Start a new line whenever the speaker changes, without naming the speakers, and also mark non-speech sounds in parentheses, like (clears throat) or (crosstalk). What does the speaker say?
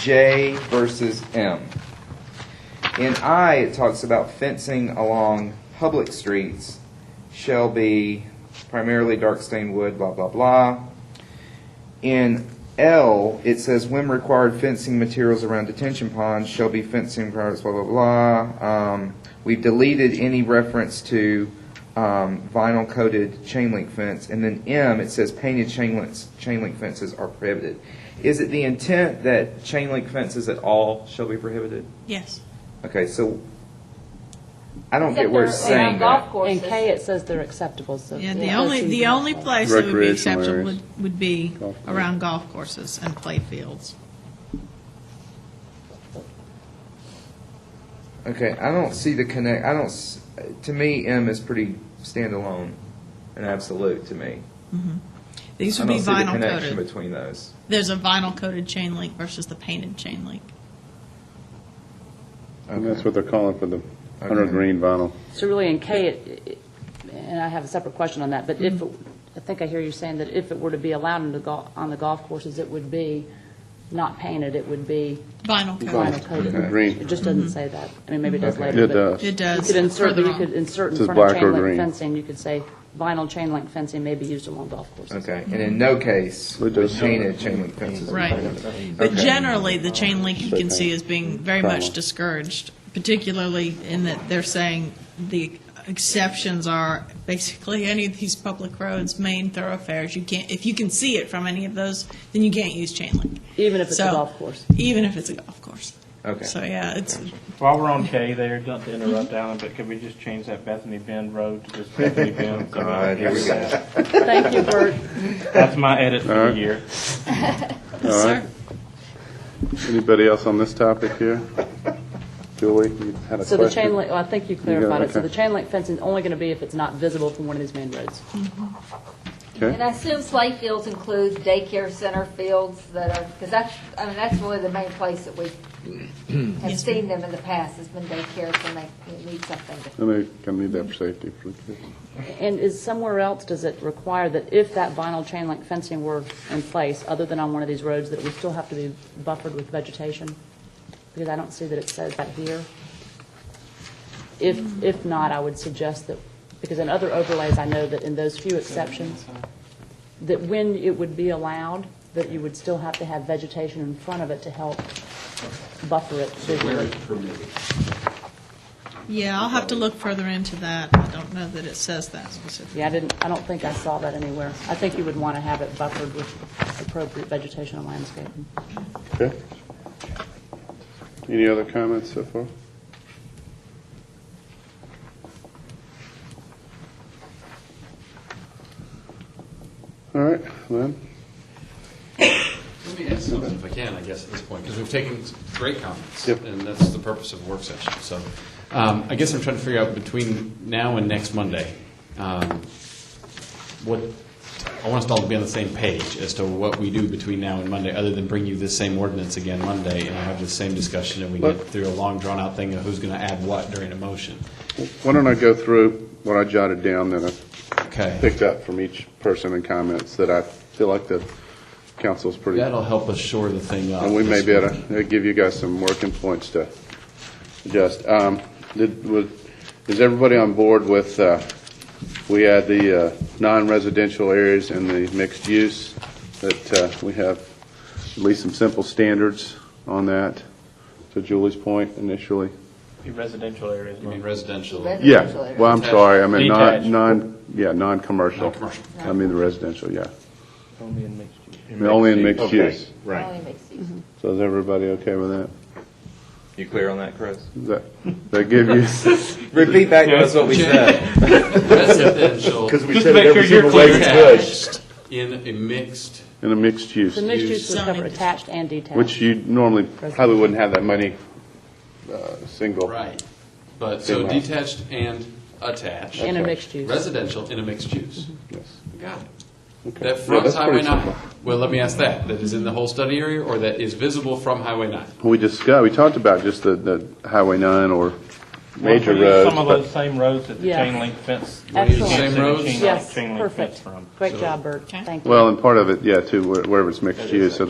J versus M. In I, it talks about fencing along public streets shall be primarily dark stained wood, blah, blah, blah. In L, it says when required, fencing materials around detention ponds shall be fencing requirements, blah, blah, blah. Um, we've deleted any reference to, um, vinyl coated chain link fence. And then M, it says painted chain links, chain link fences are prohibited. Is it the intent that chain link fences at all shall be prohibited?
Yes.
Okay, so I don't get where it's saying that.
In K, it says they're acceptable, so.
Yeah, the only, the only place that would be
Recreational
acceptable
areas.
would, would be
Golf course.
around golf courses and playfields.
Okay, I don't see the connect, I don't, s- to me, M is pretty standalone and absolute to me.
These
I
would be
don't see the
vinyl
connection
coated.
between those.
There's a vinyl coated chain link versus the painted chain link.
And that's what they're calling for the
Okay.
100 green vinyl.
So really, in K, it- it- and I have a separate question on that, but if, it- I think I hear you saying that if it were to be allowed on the golf, on the golf courses, it would be not painted, it would be
Vinyl
vinyl
coated.
coated.
Green.
It just doesn't say that. I mean, maybe it does
Okay.
later.
It
but
does.
Mm-hmm. It does.
You could insert,
Further
you
on.
could insert in
Says
front of
black or
chain link
green.
fencing, you could say vinyl chain link fencing may be used along golf courses.
Okay, and in no case
It
would
does.
painted chain link fences. be
Right.
prohibited.
But
Okay.
generally, the chain link you can see is being very much
Vinyl.
discouraged, particularly in that they're saying the exceptions are basically any of these public roads, main thoroughfares, you can't, if you can see it from any of those, then you can't use chain link.
Even if it's a
So-
golf course.
Even if it's a golf course.
Okay.
So, yeah, it's,
While we're on K there, don't to interrupt Alan, but could we just change that Bethany Bend Road to just Bethany Bend? so that I
God, here we go.
get that?
Thank you, Bert.
That's my edit for the
Alright.
year.
All
sir.
right. Anybody else on this topic here? Julie, you had a question?
So the chain link, well, I think you clarified it. So
okay.
the chain link fencing is only going to be if it's not visible from one of these main roads.
And
Okay,
I assume sleigh fields includes daycare center fields that are, because that's, I mean, that's really the main place that we
(clears throat)
have
Yes,
seen them in the past, has been daycares when they need something. to-
and they're going to need that for safety for the kids.
And is somewhere else, does it require that if that vinyl chain link fencing were in place, other than on one of these roads, that it would still have to be buffered with vegetation? Because I don't see that it says that here. If, if not, I would suggest that, because in other overlays, I know that in those few exceptions, that when it would be allowed, that you would still have to have vegetation in front of it to help buffer it visually.
Yeah, I'll have to look further into that. I don't know that it says that specifically.
Yeah, I didn't, I don't think I saw that anywhere. I think you would want to have it buffered with appropriate vegetation and landscaping.
Okay. Any other comments so far? All right, Lynn?
Let me ask something if I can, I guess, at this point, because we've taken s- great comments.
Yep.
And that's the purpose of a work session. So um, I guess I'm trying to figure out between now and next Monday, um, what, I want us all to be on the same page as to what we do between now and Monday, other than bring you this same ordinance again Monday and have the same discussion and we get
Look.
through a long drawn-out thing of who's going to add what during a motion.
Why don't I go through what I jotted down that I
Okay.
picked up from each person and comments that I feel like the council's pretty,
That'll help us shore the thing up.
and we may
this
be able
week.
to uh, give you guys some working points to adjust. Um, did, was, is everybody on board with, uh, we had the, uh, non-residential areas and the mixed use, that, uh, we have at least some simple standards on that, to Julie's point initially?
The Residential areas.
I mean, residential.
Yeah,
Residential areas.
well, I'm sorry, I meant
Detached.
non, non, yeah, non-commercial.
Non-commercial.
I mean the residential, yeah.
Only in mixed use.
Only in mixed use.
Only mixed
Mm-hmm.
use.
So is everybody okay with that?
You clear on that, Chris?
Does That, that give
(laughs)
you?
Repeat back to us what we said.
Residential
we
said it every single way
attached in a mixed
In a mixed use,
The mixed use would cover
Zoning.
attached and detached.
which you normally probably wouldn't have that many, uh, single.
Right, but, so
Single.
detached and attached.
In a mixed use.
Residential in a mixed use.
Mm-hmm. Yes.
Got it.
Okay.
That
Yeah,
fronts
that's
Highway
pretty
9.
simple.
Well, let me ask that, that is in the whole study area, or that is visible from Highway 9?
We discussed, we talked about just the, the Highway nine or major
Well,
roads.
Some of
but-
those same roads that the
Yeah.
chain link fence.
Excellent.
Same roads?
Chain link-
Yes,
chain link fence
perfect.
from.
Great job, Bert. Thank you.
Well, and part of it, yeah, too, where- wherever it's mixed use, so